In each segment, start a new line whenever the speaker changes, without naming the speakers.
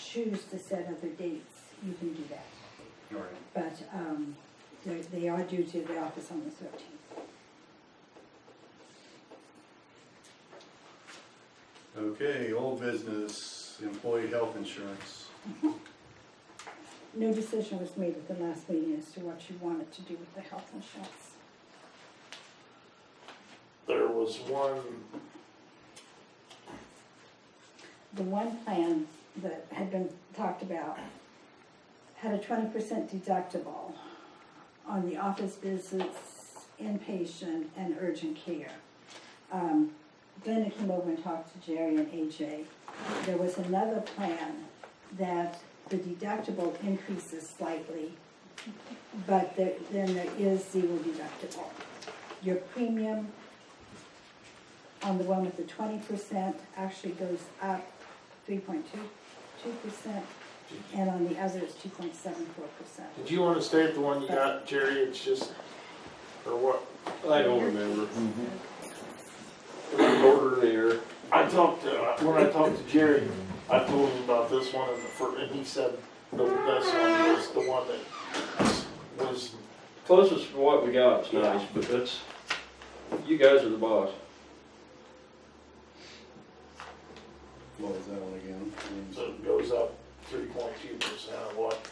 choose to set other dates, you can do that.
All right.
But um, they're- they are due to the office on the 13th.
Okay, old business, employee health insurance.
No decision was made at the last meeting as to what you wanted to do with the health insurance.
There was one,
The one plan that had been talked about had a 20% deductible on the office visits, inpatient, and urgent care. Um, Glenda came over and talked to Jerry and AJ. There was another plan that the deductible increases slightly, but there- then there is zero deductible. Your premium on the one with the twenty percent actually goes up three point two, two percent, and on the other it's two point seven four percent.
did you wanna stay at the one you got, Jerry, it's just, or what?
I don't remember. Order there.
I talked to, uh, when I talked to Jerry, I told him about this one and the fir, and he said the best one was the one that was,
Closest to what we got is nice, but that's, you guys are the boss.
What was that one again?
so it goes up three point two percent of what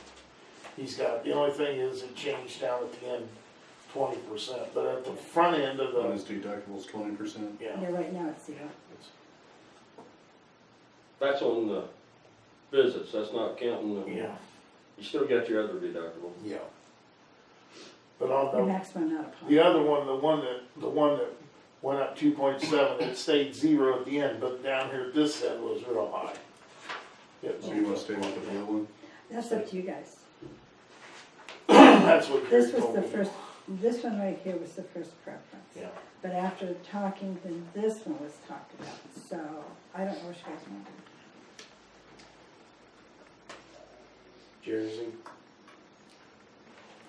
he's got. The only thing is it changed down at the end twenty percent, but at the front end of
On
the,
his deductible's twenty percent?
yeah.
Yeah, right now it's zero.
it's-
That's on the visits, that's not counting the,
Yeah,
you still got your other deductible.
yeah. But on
The
the
maximum not applied.
The other one, the one that, the one that went up two point seven, it stayed zero at the end, but down here at this end was real high. It
So you wanna stay with the blue one?
That's up to you guys.
That's what Gary
This was
told
the
me.
first, this one right here was the first preference.
Yeah,
But after talking, then this one was talked about, so I don't know what you guys want to do.
Jersey.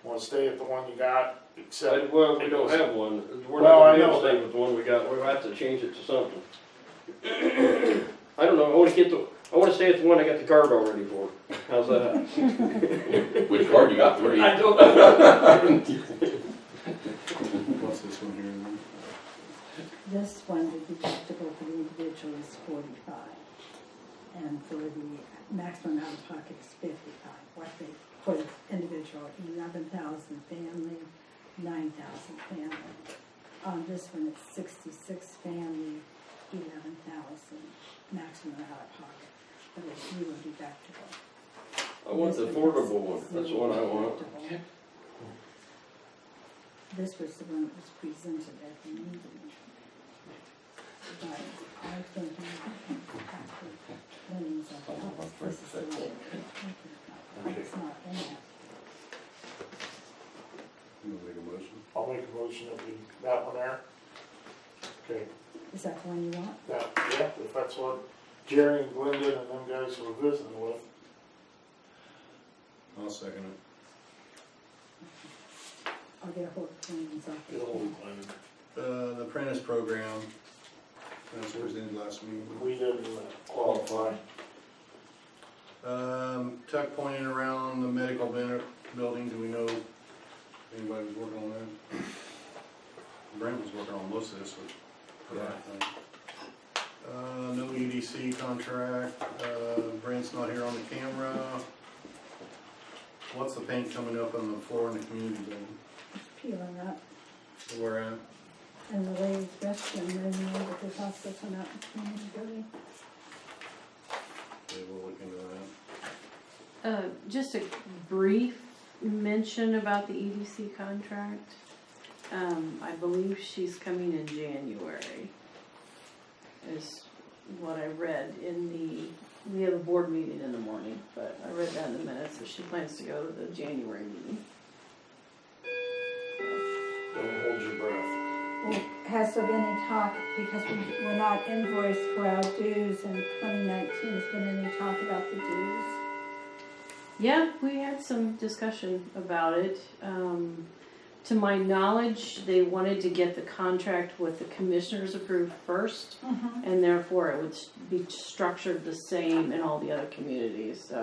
Wanna stay at the one you got,
I-
except,
Well, we don't have one, we're
Well, I
not gonna
know.
stay with the one we got, we'll have to change it to something. I don't know, I wanna get the, I wanna stay at the one I got the card already for, how's that?
Which card you got three?
I don't know.
What's this one here then?
This one, the deductible for the individual is forty-five, and for the maximum out-of-pocket is fifty-five. What they, for the individual, eleven thousand family, nine thousand family. On this one, it's sixty-six family, eleven thousand, maximum out-of-pocket, but it's zero deductible.
I want the
This one is
affordable one, that's what I want.
deductible. This was the one that was presented at the meeting. But I think you have to, Lynn's office, this is the one. that- It's not in that.
You wanna make a motion?
I'll make a motion that we, that one there. Okay,
Is that the one you want?
that, yeah, if that's what Jerry and Glenda and them guys were visiting with.
I'll second it.
I'll get a hold of Lynn's office.
Good old Glenda.
Uh, the apprentice program, that's where it ended last meeting.
We didn't uh, qualify.
Um, Tuck pointing around the medical bin- building, do we know anybody was working on that? Brent was working on most of this, which, for that thing. Uh, no EDC contract, uh, Brent's not here on the camera. What's the paint coming up on the floor in the community building?
Peeling up,
Where at?
and the ladies' restroom, and then the hospital, and out in the community building.
Yeah, we'll look into that.
Uh, just a brief mention about the EDC contract. Um, I believe she's coming in January, is what I read in the, we have a board meeting in the morning, but I read that in the minutes, that she plans to go to the January meeting.
Don't hold your breath.
Well, Has there been any talk, because we were not invoiced for our dues in twenty nineteen, has been any talk about the dues?
Yeah, we had some discussion about it. Um, to my knowledge, they wanted to get the contract with the commissioners approved first. and therefore it would be structured the same in all the other communities, so.